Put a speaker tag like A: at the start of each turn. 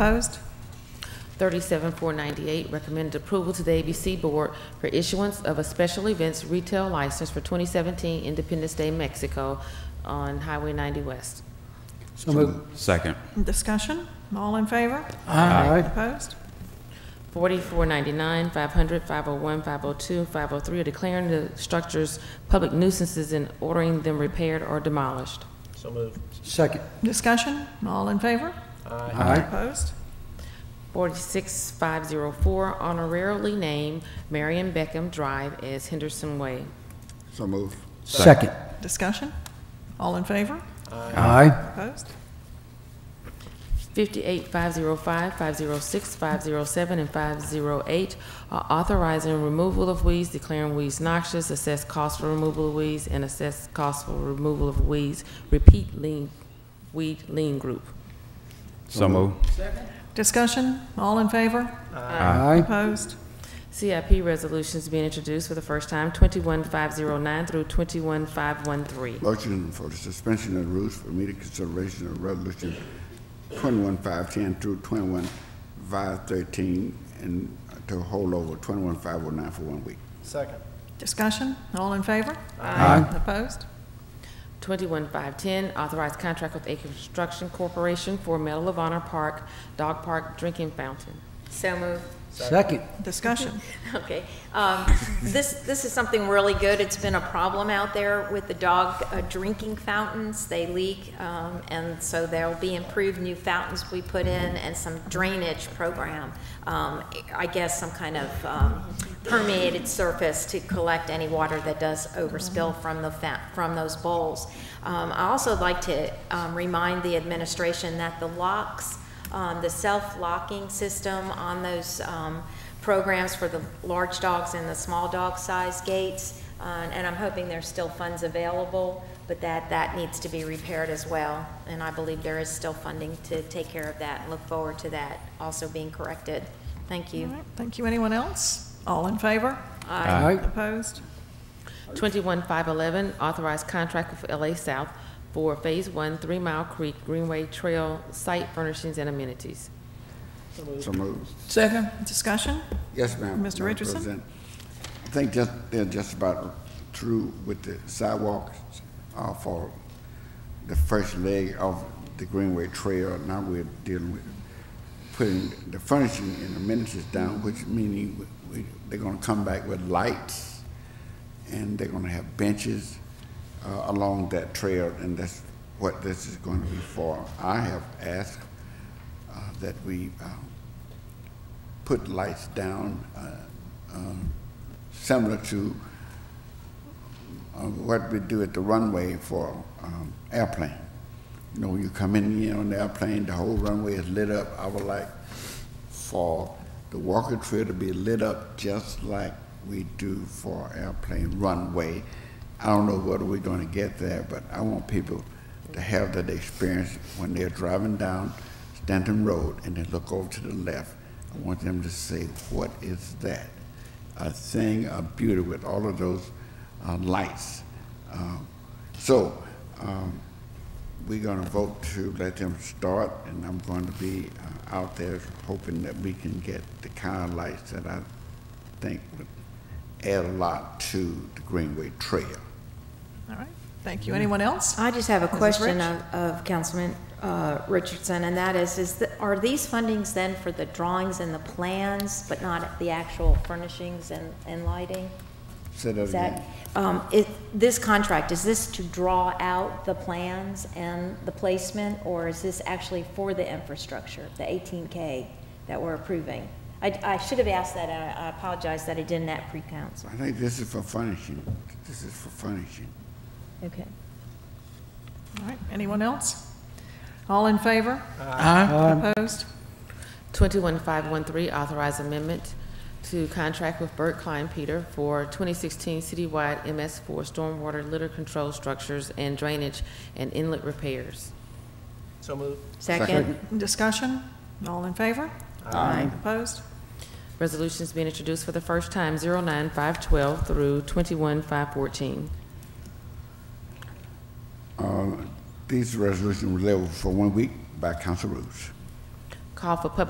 A: Opposed?
B: 37498, recommended approval to the ABC Board for issuance of a special events retail license for 2017 Independence Day Mexico on Highway 90 West.
C: So moved.
D: Second.
A: Discussion? All in favor?
C: Aye.
A: Opposed?
B: 4499, 500, 501, 502, 503 are declaring the structures public nuisances and ordering them repaired or demolished.
E: So moved.
C: Second.
A: Discussion? All in favor?
C: Aye.
A: Opposed?
B: 46504, honorarily named Marion Beckham Drive as Henderson Way.
F: So move.
C: Second.
A: Discussion? All in favor?
C: Aye.
A: Opposed?
B: 58, 505, 506, 507, and 508 are authorizing removal of weeds, declaring weeds noxious, assess cost for removal of weeds, and assess cost for removal of weeds, repeat lean, weed lean group.
D: So moved.
A: Discussion? All in favor?
C: Aye.
A: Opposed?
B: CIP resolutions being introduced for the first time, 21509 through 21513.
F: Motion for the suspension of the rules for immediate consideration of resolution 21510 through 21513 and to hold over 21509 for one week.
E: Second.
A: Discussion? All in favor?
C: Aye.
A: Opposed?
B: 21510, authorized contract with A Construction Corporation for Medal of Honor Park, Dog Park Drinking Fountain.
G: So moved.
C: Second.
A: Discussion?
G: Okay. Um, This, this is something really good. It's been a problem out there with the dog uh, drinking fountains. They leak, um, and so there'll be improved new fountains we put in and some drainage program. Um, I guess some kind of um, permeated surface to collect any water that does overspill from the, fa- from those bowls. Um, I also like to um, remind the administration that the locks, um, the self-locking system on those um, programs for the large dogs and the small dog size gates, uh, and I'm hoping there's still funds available, but that, that needs to be repaired as well. And I believe there is still funding to take care of that, and look forward to that also being corrected. Thank
A: All
G: you.
A: right. Thank you. Anyone else? All in favor?
C: Aye.
A: Opposed?
B: 21511, authorized contract with LA South for Phase 1 Three Mile Creek Greenway Trail Site Furnishings and Amenities.
F: So moved.
C: Second.
A: Discussion?
F: Yes,
A: Mr.
F: ma'am. Madam
A: Richardson?
F: President. I think just, they're just about through with the sidewalks uh, for the first leg of the Greenway Trail. Now we're dealing with putting the furnishing and amenities down, which meaning we- we- they're gonna come back with lights and they're gonna have benches uh, along that trail, and that's what this is going to be for. I have asked uh, that we uh, put lights down, uh, um, similar to uh, what we do at the runway for um, airplane. You know, you come in here on the airplane, the whole runway is lit up. I would like for the walker trail to be lit up just like we do for airplane runway. I don't know whether we're going to get there, but I want people to have that experience when they're driving down Stanton Road and they look over to the left. I want them to say, "What is that?" A thing of beauty with all of those uh, lights. Um, so. Um, we're going to vote to let them start, and I'm going to be uh, out there hoping that we can get the kind of lights that I think would add a lot to the Greenway Trail.
A: All right. Thank you. Anyone else?
G: I just have a
A: Mrs.
G: question
A: Rich?
G: of, of Councilman uh, Richardson, and that is, is, the- are these fundings then for the drawings and the plans, but not the actual furnishings and, and lighting?
F: Say that
G: Is that,
F: again.
G: um, it, this contract, is this to draw out the plans and the placement, or is this actually for the infrastructure, the eighteen K that we're approving? I, I should have asked that, and I I apologize that I didn't at pre-council.
F: I think this is for furnishing. This is for furnishing.
G: Okay.
A: All right. Anyone else? All in favor? Aye. Opposed?
B: 21513, authorized amendment to contract with Bert Klein Peter for 2016 citywide MS4 stormwater litter control structures and drainage and inlet repairs.
E: So moved.
G: Second?
A: Discussion? All in favor? Aye. Opposed?
B: Resolutions being introduced for the first time, 09512 through 21514.
F: Uh, These resolutions were leveled for one week by council rules.
B: Call for public